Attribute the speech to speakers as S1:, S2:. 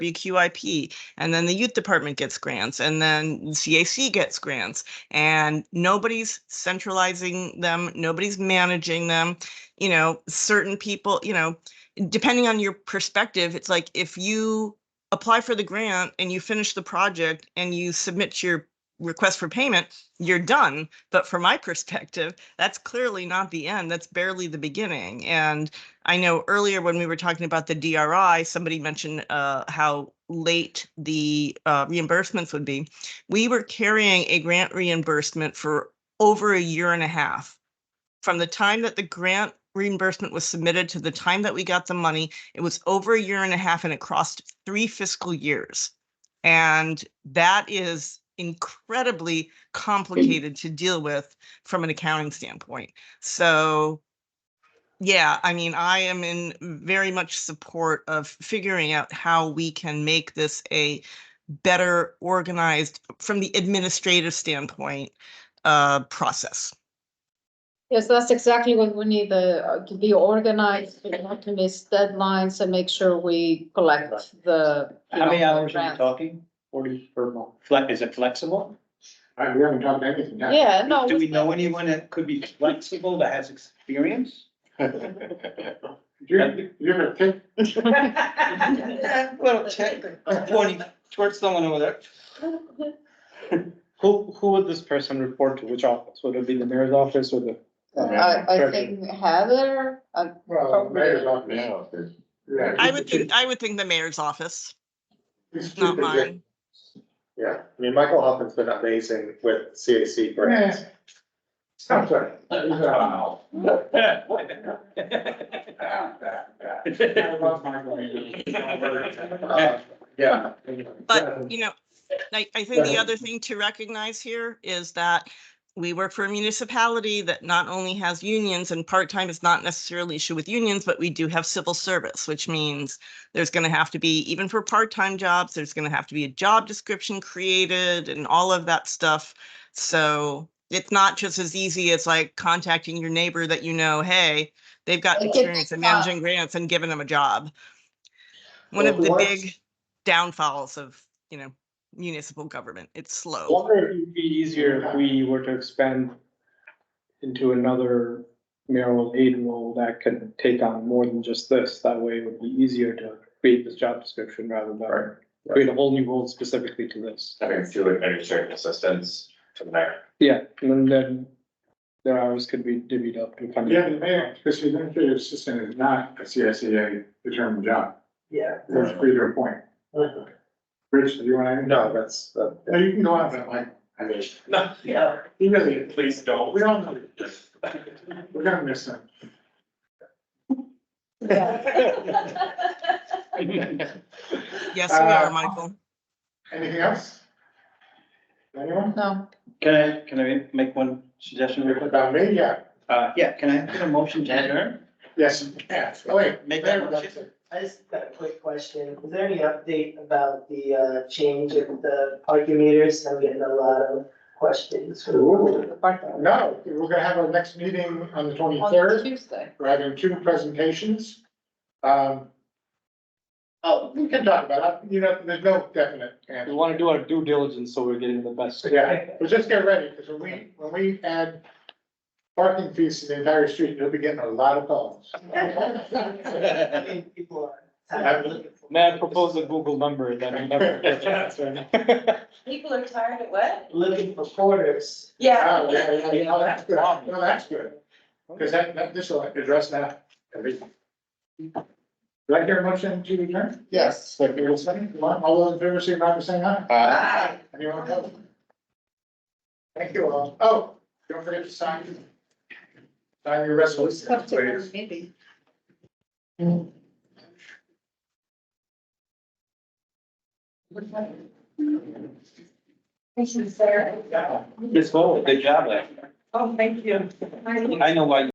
S1: BQIP, and then the youth department gets grants, and then CAC gets grants. And nobody's centralizing them, nobody's managing them. You know, certain people, you know, depending on your perspective, it's like if you apply for the grant and you finish the project and you submit your request for payment, you're done. But from my perspective, that's clearly not the end. That's barely the beginning. And I know earlier when we were talking about the DRI, somebody mentioned uh, how late the uh, reimbursements would be. We were carrying a grant reimbursement for over a year and a half. From the time that the grant reimbursement was submitted to the time that we got the money, it was over a year and a half and it crossed three fiscal years. And that is incredibly complicated to deal with from an accounting standpoint. So yeah, I mean, I am in very much support of figuring out how we can make this a better organized from the administrative standpoint uh process.
S2: Yes, that's exactly what we need, the, uh, to be organized, and not to miss deadlines and make sure we collect the. you
S3: How many
S2: know, the
S3: hours are you
S2: grants.
S3: talking? Forty per month. Flex, is it flexible?
S4: All right, we haven't done anything yet.
S2: Yeah, no.
S3: Do we know anyone that could be flexible that has experience?
S4: You, you're gonna take,
S3: Well, check, twenty, towards someone over there. Who, who would this person report to? Which office? Would it be the mayor's office or the?
S2: I, I think Heather, uh,
S4: well, the mayor's office. Yeah,
S1: I would think, I would think the mayor's office,
S4: it's
S1: not
S4: stupid, yeah.
S1: mine.
S5: Yeah, I mean, Michael Hoffman's been amazing with CAC grants.
S4: I'm sorry.
S5: uh,
S4: I love Michael. Uh, Yeah.
S1: But, you know, I, I think the other thing to recognize here is that we work for a municipality that not only has unions and part-time is not necessarily issue with unions, but we do have civil service, which means there's going to have to be, even for part-time jobs, there's going to have to be a job description created and all of that stuff. So it's not just as easy as like contacting your neighbor that you know, hey, they've got
S2: It gets
S1: experience in
S2: tough.
S1: managing grants and giving them a job. One of
S4: Well,
S1: the
S4: what-
S1: big downfalls of, you know, municipal government. It's slow.
S6: Wonder if it'd be easier if we were to expand into another mayoral aid role that can take on more than just this. That way it would be easier to create this job description rather
S5: Right.
S6: than create a whole new role specifically to this.
S5: Having two administrative assistants to the mayor.
S6: Yeah, and then their hours could be divvied up. and kind of-
S4: Yeah, the mayor, because the administrative assistant is not a CSEA determined job. Yeah. That's free to appoint. Rich, do you want to?
S5: No, that's, that,
S4: No, you can go on that, Mike. I mean,
S5: no, yeah,
S4: he really,
S5: please don't.
S4: we all know, we're gonna miss him.
S1: Yes, we are,
S4: Uh,
S1: Michael.
S4: Anything else? Anyone?
S2: no,
S3: Can I, can I make one suggestion real quick?
S4: About me, yeah,
S3: Uh, yeah, can I get a motion to adjourn?
S4: yes, you can. Oh, wait.
S3: Make that
S4: Mayor,
S3: motion.
S7: I just got a quick question. Is there any update about the uh change of the parking meters? I'm getting a lot of questions.
S4: Ooh.
S2: the part-time.
S4: No, we're gonna have our next meeting on the
S2: On the
S4: twenty-third,
S2: Tuesday.
S4: we're having two presentations. Um. Oh, we can talk about it, you know, there's no definite
S6: We
S4: answer,
S6: want to do our due diligence so we're getting the best.
S4: yeah, but just get ready, because when we, when we add parking fees to the entire street, you'll be getting a lot of calls.
S7: I mean, people are. tired of looking for-
S6: May I propose a Google number that we never get to answer?
S8: People are tired of what?
S7: Looking for quarters.
S8: Yeah.
S4: Oh, yeah, yeah, yeah, oh, that's good, no, that's good, because that, that, this will address that. everything. Do I hear a motion to adjourn?
S2: Yes.
S4: Like we were saying, all those in favor, signify by saying aye.
S7: Bye.
S4: Anyone else? Thank you all. Oh, don't forget to sign. Sign your resolution, please.
S2: Maybe.
S8: Thank you, Sarah.
S3: Yes, well, good job, Larry.
S8: Oh, thank you.
S3: I know why you